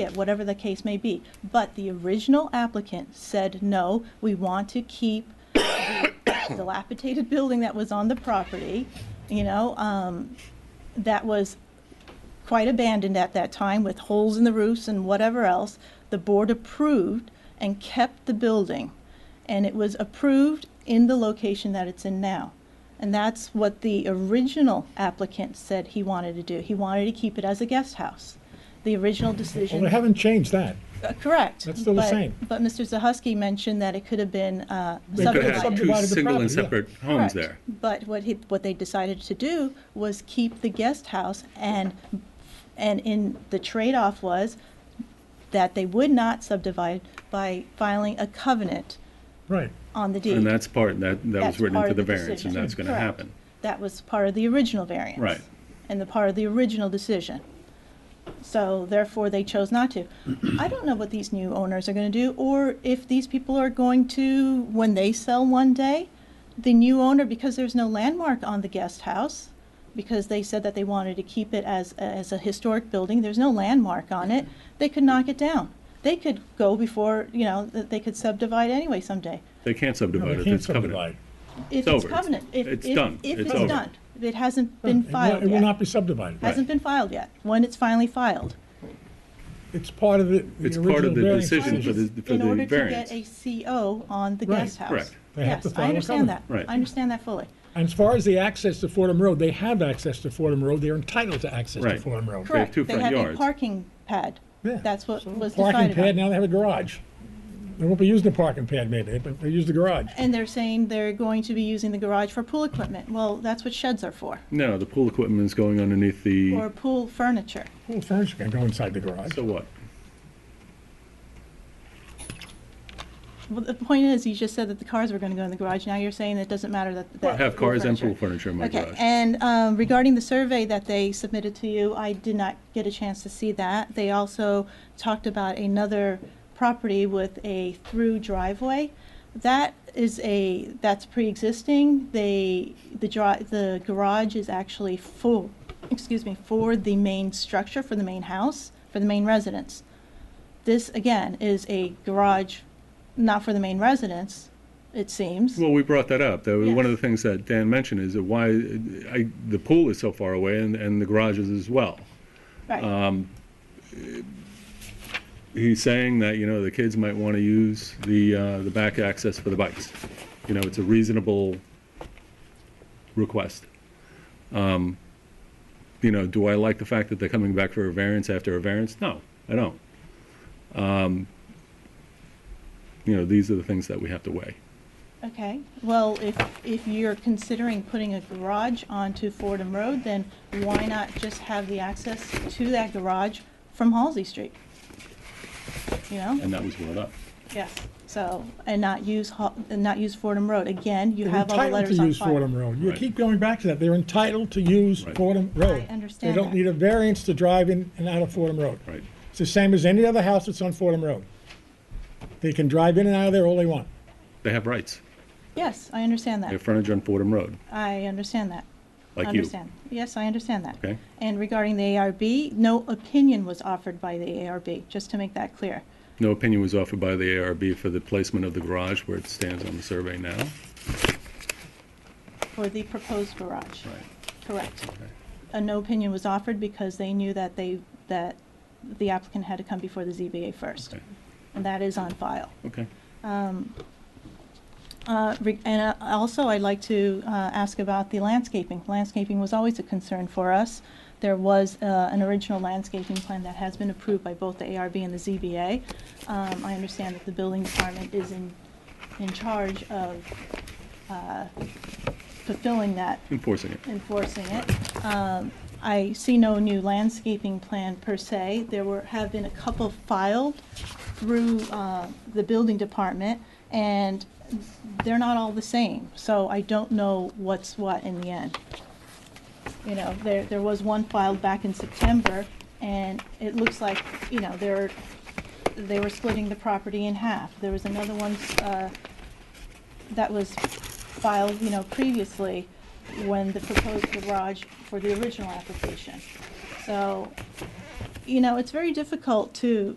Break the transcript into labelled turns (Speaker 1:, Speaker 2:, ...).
Speaker 1: it, whatever the case may be. But the original applicant said, no, we want to keep the dilapidated building that was on the property, you know, um, that was quite abandoned at that time with holes in the roofs and whatever else. The board approved and kept the building. And it was approved in the location that it's in now. And that's what the original applicant said he wanted to do. He wanted to keep it as a guest house. The original
Speaker 2: Well,
Speaker 1: decision.
Speaker 2: they haven't changed that.
Speaker 1: Uh, Correct.
Speaker 2: That's still the
Speaker 1: But-
Speaker 2: same.
Speaker 1: But Mr. Zahusky mentioned that it could have been uh,
Speaker 2: could
Speaker 1: subdivided.
Speaker 2: have
Speaker 3: Could have two
Speaker 2: Subdivided the
Speaker 3: single and
Speaker 2: property,
Speaker 3: separate homes
Speaker 1: Correct.
Speaker 3: there.
Speaker 1: But what he, what they decided to do was keep the guest house and, and in, the trade-off was that they would not subdivide by filing a covenant
Speaker 2: Right.
Speaker 1: on the deed.
Speaker 3: And that's part, that, that
Speaker 1: That's
Speaker 3: was written
Speaker 1: part
Speaker 3: into
Speaker 1: of
Speaker 3: the variance,
Speaker 1: decision.
Speaker 3: and that's gonna
Speaker 1: Correct.
Speaker 3: happen.
Speaker 1: That was part of the original variance.
Speaker 3: Right.
Speaker 1: And the part of the original decision. So therefore, they chose not to. I don't know what these new owners are gonna do, or if these people are going to, when they sell one day, the new owner, because there's no landmark on the guest house, because they said that they wanted to keep it as, as a historic building, there's no landmark on it, they could knock it down. They could go before, you know, th- they could subdivide anyway someday.
Speaker 3: They can't
Speaker 2: No,
Speaker 3: subdivide
Speaker 2: they
Speaker 3: it,
Speaker 2: can't
Speaker 3: it's
Speaker 2: subdivide.
Speaker 3: covenant.
Speaker 1: If
Speaker 3: It's
Speaker 1: it's
Speaker 3: over. It's-
Speaker 1: covenant, if, if,
Speaker 3: it's
Speaker 1: if
Speaker 3: done.
Speaker 1: it's
Speaker 3: It's over.
Speaker 1: done, if it hasn't been
Speaker 2: It will-
Speaker 1: filed
Speaker 2: It will
Speaker 1: yet,
Speaker 2: not be subdivided.
Speaker 1: hasn't been filed yet, when it's finally filed.
Speaker 2: It's part of the,
Speaker 3: It's
Speaker 2: the
Speaker 3: part
Speaker 2: original
Speaker 3: of the
Speaker 2: variance.
Speaker 3: decision for the, for
Speaker 1: In
Speaker 3: the
Speaker 1: order to get
Speaker 3: variance.
Speaker 1: a CO on the
Speaker 2: Right.
Speaker 1: guest house.
Speaker 3: Correct.
Speaker 2: They have to
Speaker 1: Yes,
Speaker 2: file
Speaker 1: I
Speaker 2: a
Speaker 1: understand that,
Speaker 2: covenant.
Speaker 3: Right.
Speaker 1: I understand that fully.
Speaker 2: And as far as the access to Fordham Road, they have access to Fordham Road. They're entitled to access to
Speaker 3: Right.
Speaker 2: Fordham Road.
Speaker 1: Correct,
Speaker 3: two
Speaker 1: they
Speaker 3: front
Speaker 1: have a
Speaker 3: yards.
Speaker 1: parking pad,
Speaker 2: Yeah.
Speaker 1: that's what was
Speaker 2: Parking
Speaker 1: decided
Speaker 2: pad,
Speaker 1: on.
Speaker 2: now they have a garage. They won't be using the parking pad maybe, but they use the garage.
Speaker 1: And they're saying they're going to be using the garage for pool equipment, well, that's what sheds are for,
Speaker 3: No, the pool equipment is going underneath
Speaker 1: or
Speaker 3: the,
Speaker 1: pool furniture.
Speaker 2: Well, furniture can go inside the garage.
Speaker 3: so what?
Speaker 1: Well, the point is, you just said that the cars were gonna go in the garage, now you're saying that it doesn't matter that, that.
Speaker 3: I have
Speaker 1: pool
Speaker 3: cars and
Speaker 1: furniture-
Speaker 3: pool furniture in my
Speaker 1: Okay,
Speaker 3: garage.
Speaker 1: and um, regarding the survey that they submitted to you, I did not get a chance to see that. They also talked about another property with a through driveway. That is a, that's pre-existing. They, the dri, the garage is actually full, excuse me, for the main structure, for the main house, for the main residence. This, again, is a garage not for the main residence, it seems.
Speaker 3: Well, we brought that up. That was one of
Speaker 1: Yes.
Speaker 3: the things that Dan mentioned is that why, I, the pool is so far away and, and the garage is as well.
Speaker 1: Right.
Speaker 3: uh, he's saying that, you know, the kids might want to use the, uh, the back access for the bikes. You know, it's a reasonable request. Um, You know, do I like the fact that they're coming back for a variance after a variance? No, I don't. Um, You know, these are the things that we have to weigh.
Speaker 1: Okay, well, if, if you're considering putting a garage onto Fordham Road, then why not just have the access to that garage from Halsey Street? You know,
Speaker 3: And that was brought up.
Speaker 1: yes, so, and not use, Hal- and not use Fordham Road. Again, you
Speaker 2: They're
Speaker 1: have all the
Speaker 2: entitled to
Speaker 1: letters on
Speaker 2: use
Speaker 1: file.
Speaker 2: Fordham Road. You
Speaker 3: Right.
Speaker 2: keep going back to that. They're entitled to use
Speaker 3: Right.
Speaker 2: Fordham Road.
Speaker 1: understand
Speaker 2: They don't
Speaker 1: that.
Speaker 2: need a variance to drive in and out of Fordham Road.
Speaker 3: Right.
Speaker 2: It's the same as any other house that's on Fordham Road. They can drive in and out of there all they want.
Speaker 3: They have rights.
Speaker 1: Yes, I understand
Speaker 3: They have
Speaker 1: that.
Speaker 3: frontage on Fordham Road,
Speaker 1: I understand that.
Speaker 3: like you.
Speaker 1: Understand. Yes, I understand that.
Speaker 3: Okay.
Speaker 1: And regarding the ARB, no opinion was offered by the ARB, just to make that clear.
Speaker 3: No opinion was offered by the ARB for the placement of the garage where it stands on the survey now.
Speaker 1: For the proposed garage.
Speaker 3: Right.
Speaker 1: Correct. A no opinion was offered because they knew that they, that the applicant had to come before the ZBA first.
Speaker 3: Okay.
Speaker 1: And that is on file.
Speaker 3: Okay.
Speaker 1: Uh, re- And uh, also, I'd like to uh, ask about the landscaping. Landscaping was always a concern for us. There was uh, an original landscaping plan that has been approved by both the ARB and the ZBA. Um, I understand that the building department is in, in charge of uh, fulfilling that
Speaker 3: Enforcing it.
Speaker 1: enforcing it. Um, I see no new landscaping plan per se. There were, have been a couple filed through uh, the building department, and they're not all the same, so I don't know what's what in the end. You know, there, there was one filed back in September, and it looks like, you know, they're, they were splitting the property in half. There was another one uh, that was filed, you know, previously when the proposed garage for the original application. So you know, it's very difficult to,